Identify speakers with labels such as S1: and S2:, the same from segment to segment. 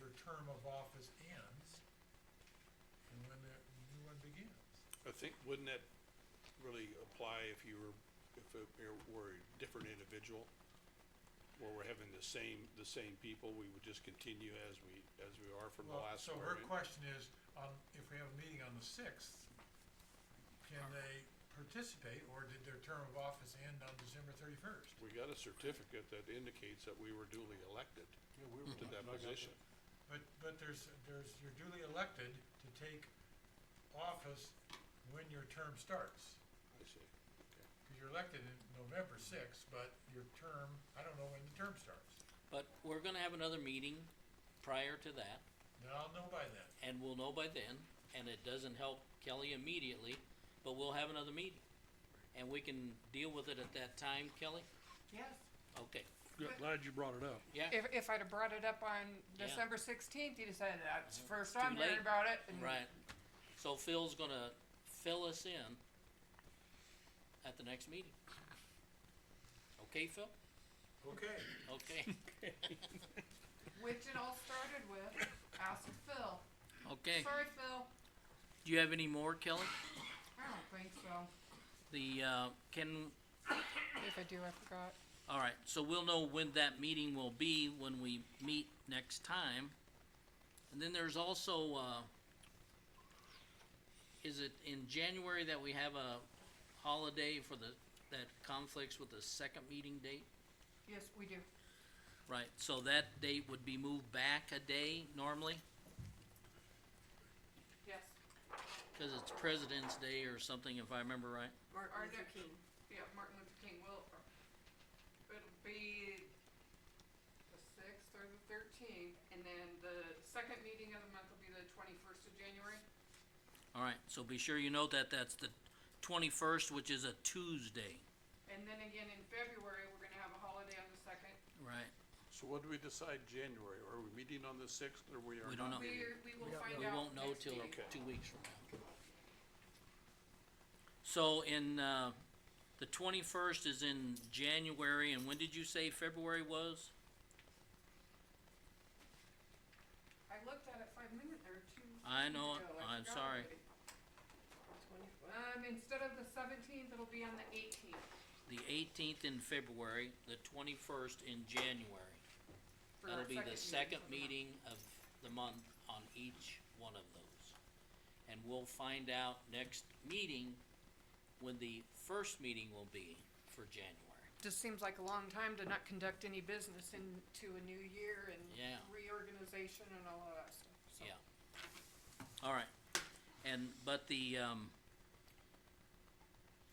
S1: of office ends and when the new one begins.
S2: I think, wouldn't that really apply if you were, if it were- were a different individual? Where we're having the same, the same people, we would just continue as we, as we are from the
S1: Well,
S2: last
S1: So her
S2: swearing in?
S1: question is, um, if we have a meeting on the sixth, can they participate or did their term of office end on December thirty-first?
S2: We got a certificate that indicates that we were duly elected
S3: Yeah, we
S2: to that position.
S1: But, but there's, there's, you're duly elected to take office when your term starts.
S2: I see.
S1: Cause you're elected in November sixth, but your term, I don't know when the term starts.
S4: But we're gonna have another meeting prior to that,
S1: Now I'll know by then.
S4: and we'll know by then, and it doesn't help Kelly immediately, but we'll have another meeting. And we can deal with it at that time, Kelly?
S5: Yes.
S4: Okay,
S3: Yeah, glad you brought it up.
S4: yeah,
S5: If, if I'd have brought it up on
S4: Yeah.
S5: December sixteenth, you'd have said, that's the first
S4: too
S5: time hearing
S4: late."
S5: about it. and
S4: right. So Phil's gonna fill us in at the next meeting. Okay, Phil?
S1: Okay.
S4: Okay,
S5: Which it all started with, ask Phil.
S4: okay.
S5: Sorry, Phil,
S4: Do you have any more, Kelly?
S5: I don't think so.
S4: The, uh, can,
S5: If I do, I forgot.
S4: All right, so we'll know when that meeting will be when we meet next time. And then there's also, uh, is it in January that we have a holiday for the, that conflicts with the second meeting date?
S5: Yes, we do.
S4: Right, so that date would be moved back a day normally,
S5: Yes.
S4: cause it's President's Day or something, if I remember right.
S6: Martin
S5: Are there-
S6: Luther King.
S5: Yeah, Martin Luther King will, it'll be the sixth or the thirteenth, and then the second meeting of the month will be the twenty-first of January.
S4: All right, so be sure you note that that's the twenty-first, which is a Tuesday,
S5: And then again in February, we're gonna have a holiday on the second.
S4: right?
S2: So what do we decide January? Are we meeting on the sixth or we are
S4: We don't
S2: not
S4: know.
S2: meeting?
S5: We, we will find out.
S4: We won't know
S5: next
S4: till
S5: meeting.
S2: Okay.
S4: two weeks from now. So in, uh, the twenty-first is in January, and when did you say February was?
S5: I looked at it five minutes or two.
S4: I know,
S5: minutes ago. I
S4: I'm
S5: forgot
S4: sorry.
S5: already. Um, instead of the seventeenth, it'll be on the eighteenth
S4: The eighteenth in February, the twenty-first in January.
S5: for our
S4: That'll
S5: second meeting.
S4: be the second
S5: of the month.
S4: meeting of the month on each one of those. And we'll find out next meeting when the first meeting will be for January.
S5: Just seems like a long time to not conduct any business into a new year and
S4: Yeah.
S5: reorganization and all of that stuff, so.
S4: Yeah. All right, and, but the, um,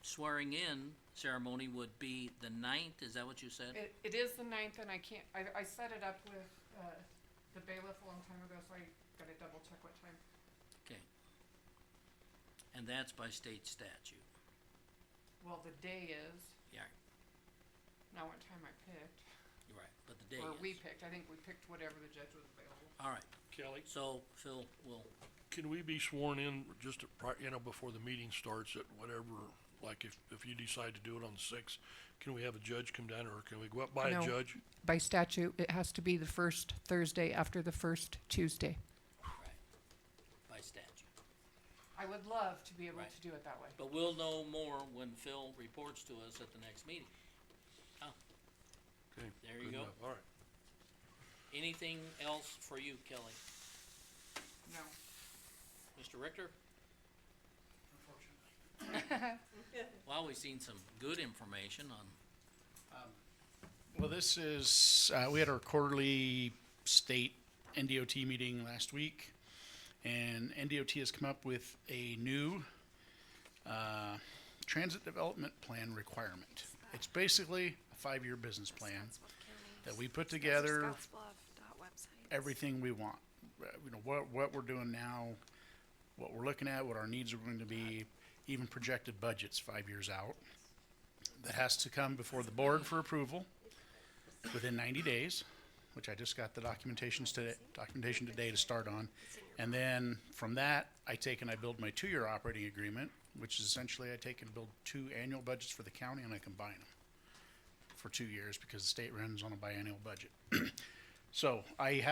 S4: swearing in ceremony would be the ninth, is that what you said?
S5: It, it is the ninth and I can't, I, I set it up with, uh, the bailiff a long time ago, so I gotta double check what time.
S4: Okay. And that's by state statute,
S5: Well, the day is,
S4: yeah,
S5: not what time I picked,
S4: you're right, but the day
S5: or we
S4: is.
S5: picked, I think we picked whatever the judge was available.
S4: All right,
S2: Kelly?
S4: so Phil will,
S3: Can we be sworn in just at, pri- you know, before the meeting starts at whatever, like if, if you decide to do it on the sixth, can we have a judge come down or can we go up by a
S7: No.
S3: judge?
S7: by statute, it has to be the first Thursday after the first Tuesday.
S4: right, by statute.
S5: I would love to be able
S4: Right.
S5: to do it that way.
S4: But we'll know more when Phil reports to us at the next meeting.
S3: Okay,
S4: There you
S3: good
S4: go.
S3: enough. All right.
S4: Anything else for you, Kelly?
S5: No.
S4: Mr. Richter? Well, we've seen some good information on,
S8: Well, this is, uh, we had our quarterly state NDOT meeting last week, and NDOT has come up with a new uh, transit development plan requirement. It's basically a five-year business plan that we put together everything we want. Uh, You know, what, what we're doing now, what we're looking at, what our needs are going to be, even projected budgets five years out. That has to come before the board for approval within ninety days, which I just got the documentations today, documentation today to start on. And then from that, I take and I build my two-year operating agreement, which is essentially I take and build two annual budgets for the county and I combine them for two years because the state runs on a biannual budget. So I have